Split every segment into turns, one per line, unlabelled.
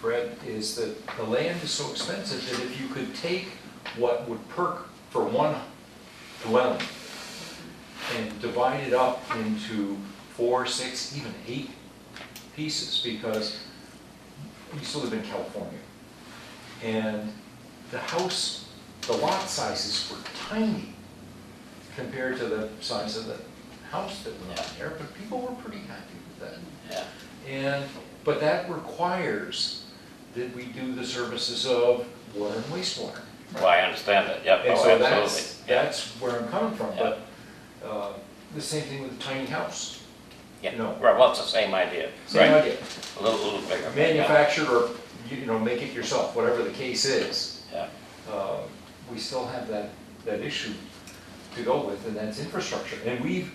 Brett, is that the land is so expensive that if you could take what would perk for one dwelling and divide it up into four, six, even eight pieces, because we used to live in California. And the house, the lot sizes were tiny compared to the size of the house that were on there, but people were pretty happy with that.
yeah.
And, but that requires that we do the services of water and wastewater.
Well, I understand that, yep,
And
oh,
so that's,
absolutely.
that's where I'm coming from, but, uh, the same thing with the tiny house.
Yeah,
no.
right, well, it's the same idea,
Same
right?
idea,
A little, little bigger. but yeah,
uh, manufacture or, you know, make it yourself, whatever the case is.
Yeah,
Uh, we still have that, that issue to go with, and that's infrastructure. And we've,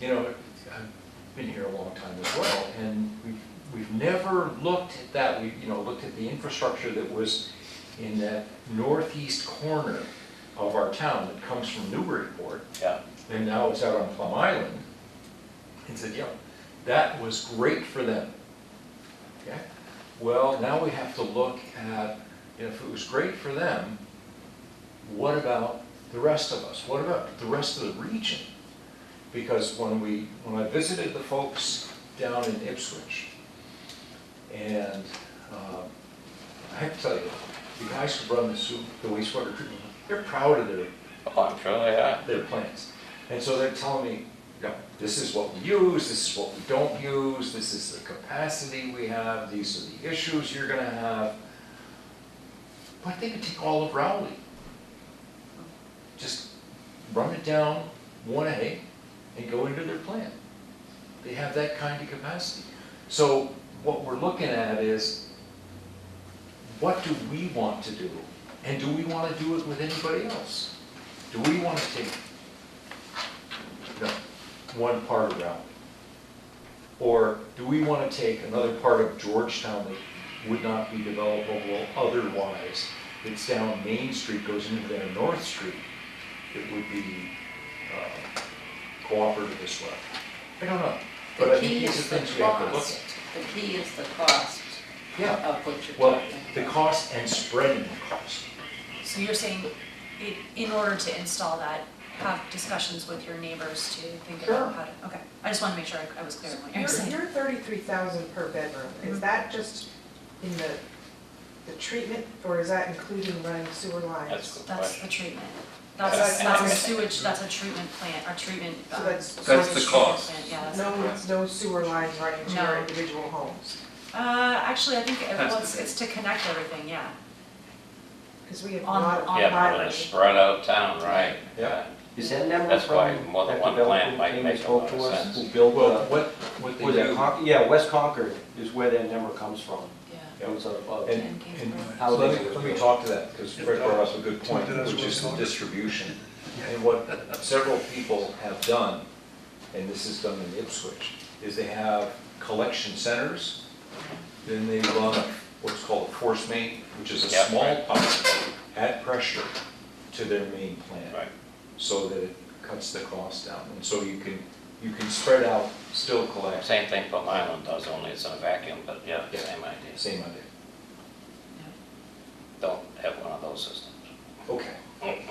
you know, I've been here a long time as well, and we've, we've never looked at that, we, you know, looked at the infrastructure that was in that northeast corner of our town that comes from Newburyport,
yeah,
and now it's out on Plum Island, and said, yeah, that was great for them. Okay, well, now we have to look at, if it was great for them, what about the rest of us? What about the rest of the region? Because when we, when I visited the folks down in Ipswich, and, uh, I have to tell you, the guys who run the soup, the wastewater treatment, they're proud of their
oh, I'm sure they are,
their plans. And so they're telling me, you know, this is what we use, this is what we don't use, this is the capacity we have, these are the issues you're gonna have. But they could take all of Rowley. Just run it down one A and go into their plan. They have that kind of capacity. So what we're looking at is, what do we want to do? And do we wanna do it with anybody else? Do we want to take the one part of Raleigh? Or do we want to take another part of Georgetown that would not be developable otherwise? It's down Main Street, goes into their North Street, it would be uh, cooperative as well. I don't know, but
The
I think
key
these
is
are
the
things we have to look
cost.
at.
The key is the cost
Yeah,
of what you're
well,
talking
the
about.
cost and spreading the cost.
So you're saying, i- in order to install that, have discussions with your neighbors to think
Sure.
about how to, okay. I just wanted to make sure I- I was clear on what you
Your,
were saying. Mm-hmm.
your thirty-three thousand per bedroom, is that just in the, the treatment, or is that including running sewer lines?
that's a good
That's
question.
the treatment. That's,
That's-
that's a
that's-
sewage, that's a treatment plant, our treatment.
So
um,
that's-
sewage
That's the
treatment
cost.
plant, Yeah, that's the
No,
cost.
no sewer lines running to your
No.
individual homes,
Uh, actually, I think, it-
That's
well,
the
it's, it's to connect everything, yeah.
because we have a
On-
lot of
on
island.
Yeah, but it's spread out of town, right?
Yeah.
Is that number
That's why
from
more than
that
one plant
developer
might
came
make
and
a
spoke
lot
to
of
us?
sense.
Who built,
Well,
uh,
what, what they
was it
do.
Con- yeah, West Concord is where that number comes from. It was a, a-
And, and
How
so let
they
me,
were
let me
doing.
talk to that, because Fred brought up a good point,
Something else
which
we're
is the
talking.
distribution. And what several people have done, and this is done in Ipswich, is they have collection centers, then they run what's called a force main, which is a
Yeah,
small
right.
pipe at pressure to their main plant.
Right,
So that it cuts the cost down, and so you can, you can spread out, still collect,
same thing Plum Island does, only it's in a vacuum, but yeah,
Yeah.
same idea.
same idea.
Don't have one of those systems.
Okay.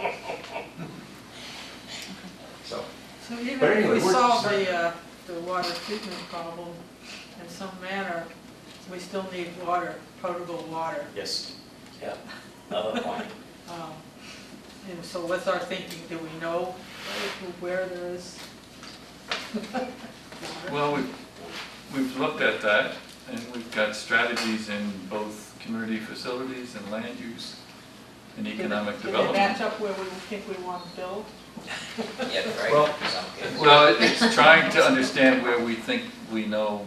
So.
So
But
even
anyway,
if we
we're-
solve the, uh, the water treatment problem in some manner, we still need water, potable water.
Yes.
Yeah, another point.
Um, And so what's our thinking? Do we know where there is? water?
Well, we've, we've looked at that, and we've got strategies in both community facilities and land use and economic
Did it match
development.
up where we think we want to build?
Yeah,
Well,
right, in some cases.
Well, it's trying to understand where we think we know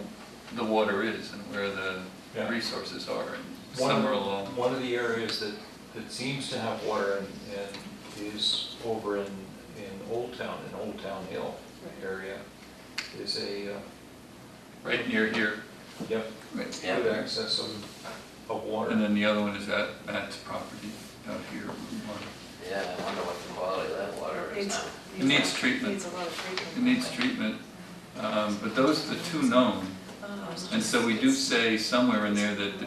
the water is and where the
Yeah.
resources are, and
One of-
somewhere along.
One of the areas that, that seems to have water and, and is over in, in Old Town, in Old Town Hill area, is a, uh,
right near here.
yep,
Right.
Yeah.
good access of, of
And
water.
then the other one is at Matt's property out here.
Yeah, I wonder what the quality of that water is now.
It needs treatment,
Needs a lot of treatment.
it needs treatment, um, but those are the two known.
Oh, I was
And so we do say somewhere in there that the